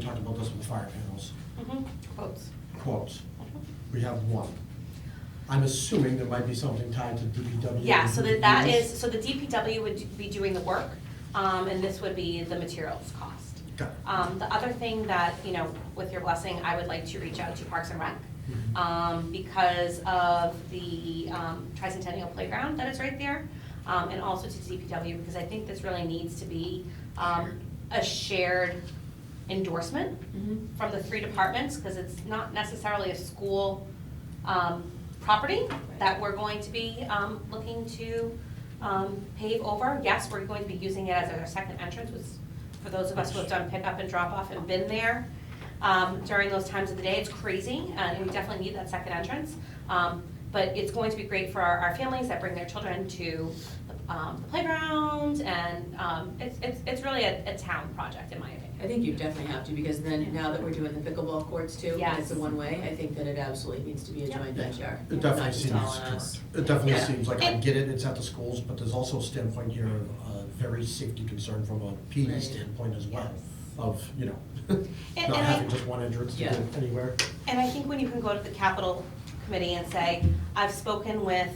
talked about this with fire panels, Mm-hmm. Quotes. quotes. We have one. I'm assuming there might be something tied to E. DPW. Yeah, so that, that is, so the DPW would be doing the work, um, and this would be the materials cost. Got it. Um, the other thing that, you know, with your blessing, I would like to reach out to Parks and Rec, Mhm. um, because of the, um, tricentennial playground that is right there, um, and also to DPW, because I think this really needs to be, um, a shared endorsement from the three departments, because it's not necessarily a school um, property that we're going to be um, looking to um, pave over. Yes, we're going to be using it as our second entrance, which for those of us who have done pickup and drop-off and been there um, during those times of the day, it's crazy, uh, and we definitely need that second entrance. Um, But it's going to be great for our our families that bring their children to um, the playground, and um, it's- it's it's really a a town project, in my opinion. I think you definitely have to, because then, now that we're doing the pickleball courts too, and it's a Yes. one-way, I think that it absolutely needs to be a Yep. joint Yeah. venture. It not definitely just seems, all on us. correct. it definitely Yeah. seems like, I get it, it's at the schools, but there's also a standpoint here of uh, very safety concern from a PD Right. standpoint as well, Yes. of, you know, and not I- having just one entrance to Yeah. get anywhere. And I think when you can go to the capital committee and say, I've spoken with,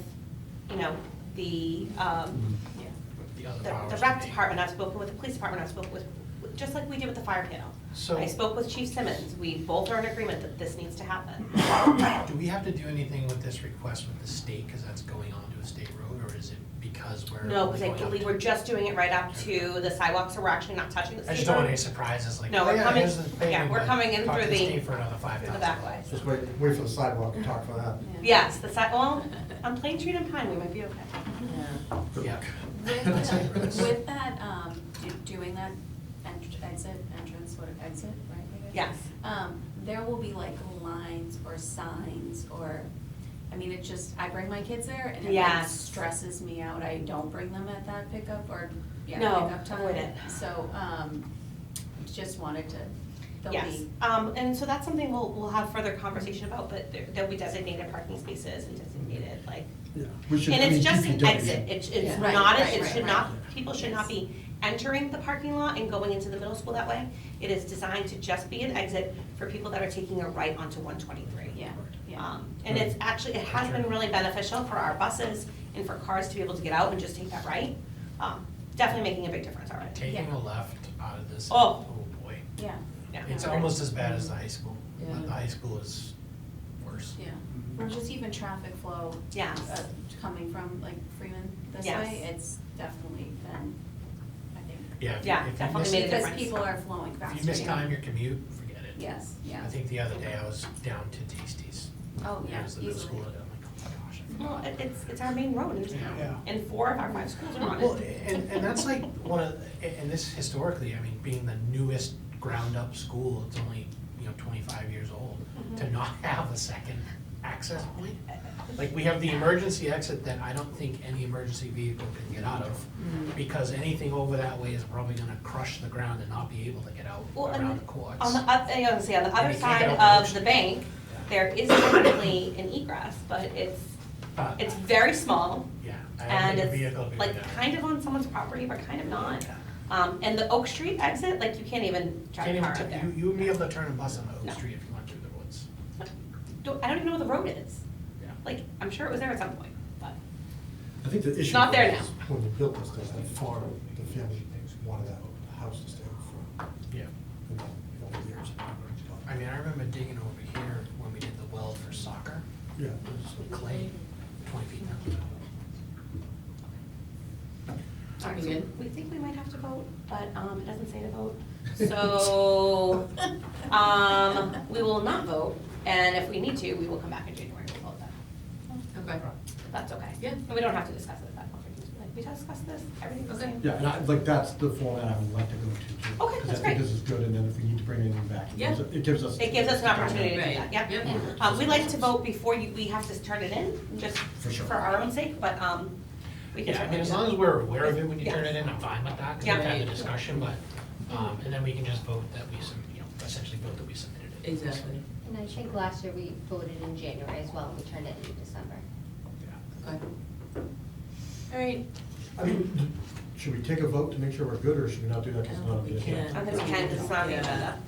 you know, the, um, The the other the powers rec that be. department, I've spoken with the police department, I've spoken with, just like we did with the fire panel. So- I spoke with Chief Simmons, we both are in agreement that this needs to happen. Do we have to do anything with this request with the state, because that's going on to a state road, or is it because we're? No, because I going up believe to- we're just doing it right up to the sidewalk, so we're actually not touching the I just street don't want any road surprises, like, No, oh we're yeah, coming- here's the thing. yeah, we're but coming in talk to through the- state for another five for the thousand. back way. Just wait, wait for the sidewalk and talk for that. Yes, the sidewalk, on Plain Street and Pine, we might be okay. Yeah. Good Yeah. luck. With that, with that, um, do- doing that entr- exit, entrance, what, exit, right? I guess? Yes. Um, there will be like lines or signs or, I mean, it just, I bring my kids there and it like Yes. stresses me out. I don't bring them at that pickup or, yeah, No, pickup time. avoid it. So, um, just wanted to, there'll Yes, be, um, and so that's something we'll, we'll have further conversation about, but there, there'll be designated parking spaces and designated, like, Yeah, we should- E and I it's mean, just an DPW exit, it's, it's Yeah. Right, not, right, it right, should right. not, people should not be entering the parking lot and going into the middle school that way. It is designed to just be an exit for people that are taking a right onto one twenty-three. yeah, yeah. Um, and it's actually, it has been really beneficial for our buses and for cars to be able to get out and just take that right. Um, definitely making a big difference already. Taking Yeah. a left out of this, Oh. oh boy, Yeah, Yeah. it's almost as bad as the high school, Yeah. but the high school is worse. yeah. Or just even traffic flow. Yes. uh, Coming from like Freeman this Yes. way, it's definitely been, I think. Yeah, if you- Yeah, if you definitely miss- made a Because difference. people are flowing faster. If you miss yeah. time your commute, forget it. Yes, yeah. I think the other day I was down to Tasties. Oh, It yeah, was the middle easily. school, and I'm like, oh my gosh. I forgot Well, it- it's, it's our main road in Yeah. town, and four of our five schools are on Well, it. and, and that's like one of, and and this historically, I mean, being the newest ground-up school, it's only, you know, twenty-five years old, Mm-hmm. to not have a second access point. Like, we have the emergency exit that I don't think any emergency vehicle can get out of, Mm-hmm. because anything over that way is probably gonna crush the ground and not be able to get out Well, and around the courts. On the, oth- I gotta say, on the And other you can't side get out of the the ocean. bank, there is definitely an egress, but it's, But, it's very small, Yeah, I don't and think a vehicle it's could like go down. kind of on someone's property, but kind of not. Yeah. Um, and the Oak Street exit, like, you can't even drive Can't a even, car up t- there. you, you wouldn't be able to turn a bus on No. Oak Street if you went through the woods. Don't- I don't even know where the road is. Yeah. Like, I'm sure it was there at some point, but, I think the issue. Not there was When they built this, there's that farm, the family wanted that house to stay for, Yeah. you know, over years. I mean, I remember digging over here when we did the well for soccer, Yeah. it was clay, twenty feet down. all right, We so good? we think we might have to vote, but, um, it doesn't say to vote. So, Oh, um, we will not vote, and if we need to, we will come back in January and vote that. Okay. If that's okay. Yeah. And we don't have to discuss it at that point, we can just be like, we discussed this, everything's the Okay. same. Yeah, and I, like, that's the format I would like to go to, too. Okay, that's Because I great. think this is good, and then if we need to bring anything back, it Yeah. gives- it gives us. It gives us an opportunity to do Right. that, yep. Yep. Um, we like to vote before you, we have to turn it in, just For sure. for our own sake, but, um, we can. Yeah, I certainly mean, as do long that. as we're aware of it when you Yeah. turn it in, I'm fine with that, because we've Yeah. had the discussion, but, um, and then we can just vote that we, sub- you know, essentially vote that we submitted it. Exactly. And I think last year we voted in January as well, and we turned it in December. Yeah. Okay. All right. I mean, should we take a vote to make sure we're good, or should we not do that because it's not on the We agenda? can. I think we can, 'cause it's not on the agenda.